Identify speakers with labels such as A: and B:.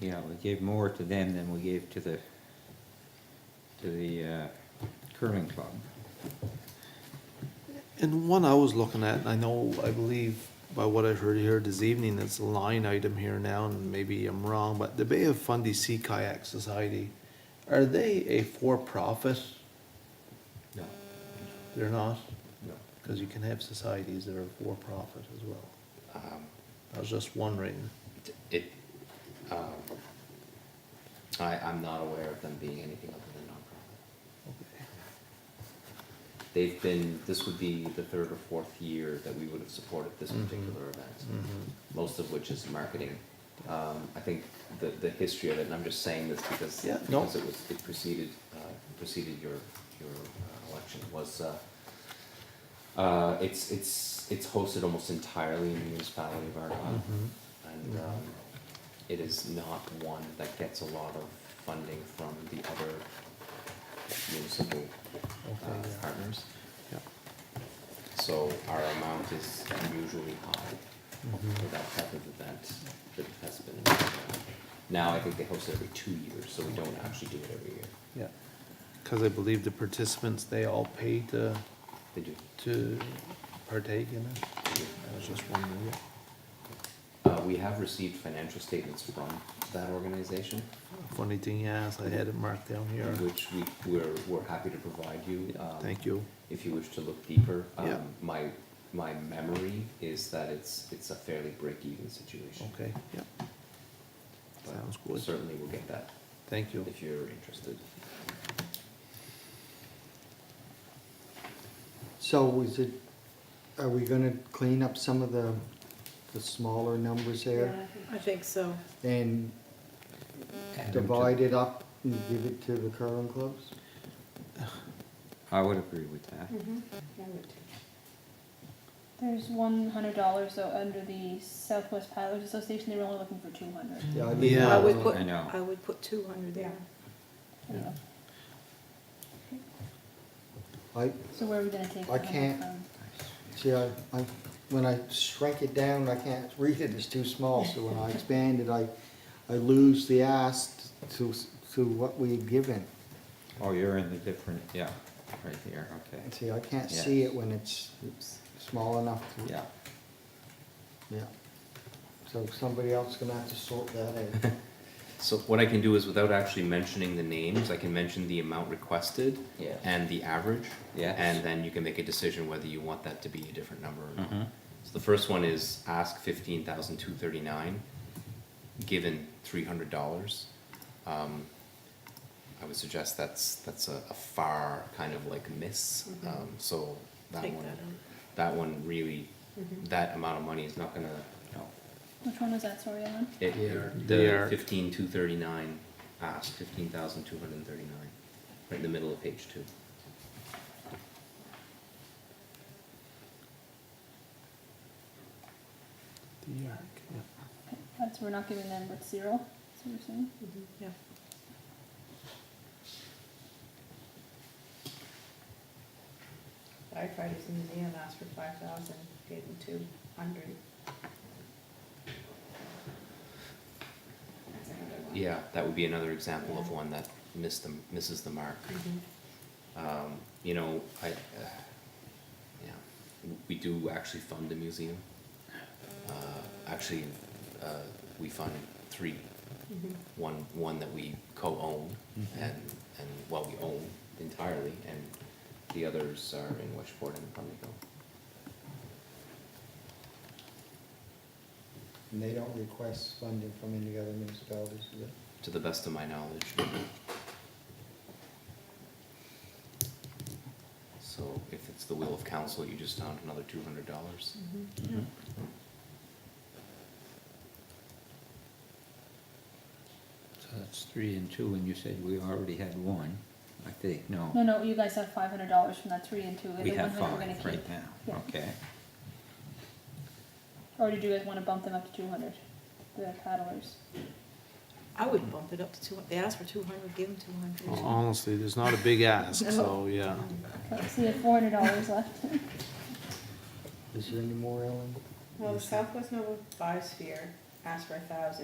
A: you know, we gave more to them than we gave to the, to the uh, curling club.
B: And one I was looking at, and I know, I believe by what I heard here this evening, it's a line item here now, and maybe I'm wrong, but the Bay of Fundy Sea Kayak Society, are they a for-profit?
C: No,
B: They're not,
C: no.
B: because you can have societies that are for-profit as well.
C: Um,
B: I was just wondering.
C: It, um, I, I'm not aware of them being anything other than nonprofit.
B: Okay.
C: They've been, this would be the third or fourth year that we would have supported this
B: Mhm.
C: particular event,
B: Mhm.
C: most of which is marketing. Um, I think the, the history of it, and I'm just saying this because,
B: Yeah, no.
C: because it was, it preceded, uh, preceded your, your uh, election, was, uh, uh, it's, it's, it's hosted almost entirely in the municipality of Argonne.
B: Mhm.
C: And um, it is not one that gets a lot of funding from the other municipal uh,
B: Okay, yeah.
C: partners.
B: Yeah.
C: So our amount is unusually high for
B: Mhm.
C: that type of event that has been. in the past. Now, I think they host it every two years, so we don't actually do it every year.
B: Yeah, because I believe the participants, they all pay to,
C: They do.
B: to partake in it. I was just wondering. yeah.
C: Uh, We have received financial statements from that organization.
B: Funny thing, yes, I had it marked down here.
C: Which we, we're, we're happy to provide you. um,
B: Thank you.
C: If you wish to look deeper.
B: Yeah.
C: Um, My, my memory is that it's, it's a fairly break-even situation.
B: Okay, yep.
C: But
B: Sounds good.
C: Certainly we'll get that
B: Thank you.
C: if you're interested.
D: So is it, are we gonna clean up some of the, the smaller numbers there?
E: I think so.
D: And
A: Add them to-
D: divide it up and give it to the curling clubs?
A: I would agree with that.
F: Mm-hmm.
G: There's one hundred dollars though under the Southwest Pilots Association. They were only looking for two hundred.
D: Yeah, I mean,
B: Yeah.
E: I would put,
A: I know.
E: I would put two hundred there.
B: Yeah.
D: I,
G: So where are we gonna take?
D: I
G: the money
D: can't-
G: from?
D: see, I, I, when I shrink it down, I can't read it, it's too small, so when I expand it, I, I lose the ask to, to what we had given.
A: Oh, you're in the different, yeah, right there, okay.
D: And See, I can't see it when it's
A: Oops.
D: small enough to.
A: Yeah,
D: Yeah. So somebody else is gonna have to sort that out.
C: So what I can do is, without actually mentioning the names, I can mention the amount requested
A: Yeah.
C: and the average.
A: Yes.
C: And then you can make a decision whether you want that to be a different number or not.
E: Mm-hmm.
A: Mhm.
C: So the first one is ask fifteen thousand two thirty-nine, given three hundred dollars. Um, I would suggest that's, that's a, a far kind of like miss, um, so that
E: Mm-hmm. Take
C: one,
E: that out. Mm-hmm.
C: that one really, that amount of money is not gonna,
A: no,
G: Which one was that? Sorry, Ellen.
C: it,
D: Yeah.
C: the
B: Yeah.
C: fifteen two thirty-nine, ask fifteen thousand two hundred and thirty-nine, right in the middle of page two.
B: The arc, yeah.
G: That's we're not giving them but zero. That's what we're saying.
F: Mm-hmm.
E: Yeah.
F: Firefighters Museum asked for five thousand, gave them two hundred. That's another one.
C: Yeah, that would be another example of
F: Yeah.
C: one that missed the, misses the mark.
F: Mhm.
C: Um, you know, I, uh, yeah, w- we do actually fund the museum. Uh, actually, uh, we fund three.
F: Mhm.
C: One, one that we co-own and, and, well, we own entirely, and the others are in Westport and Pimlico.
D: And they don't request funding from any other municipalities, do they?
C: To the best of my knowledge. So if it's the will of council, you just found another two hundred dollars.
F: Mhm.
A: Mm-hmm. so that's three and two, and you said we already had one, I think,
G: No,
A: no.
G: no. You guys have five hundred dollars from that three and two.
A: We
G: the
A: have
G: 100 we're gonna
A: five right
G: keep.
A: now,
G: Yeah.
A: okay.
G: Or did you guys want to bump them up to two hundred? The paddlers.
E: I would bump it up to two, they asked for two hundred, give them two
B: Well, um,
E: hundred.
B: Honestly, there's not a big ask, so, yeah.
G: Okay, so you have four hundred dollars left.
D: Is there any more, Ellen?
F: Well, the Southwest Nova Biosphere asked for a thousand.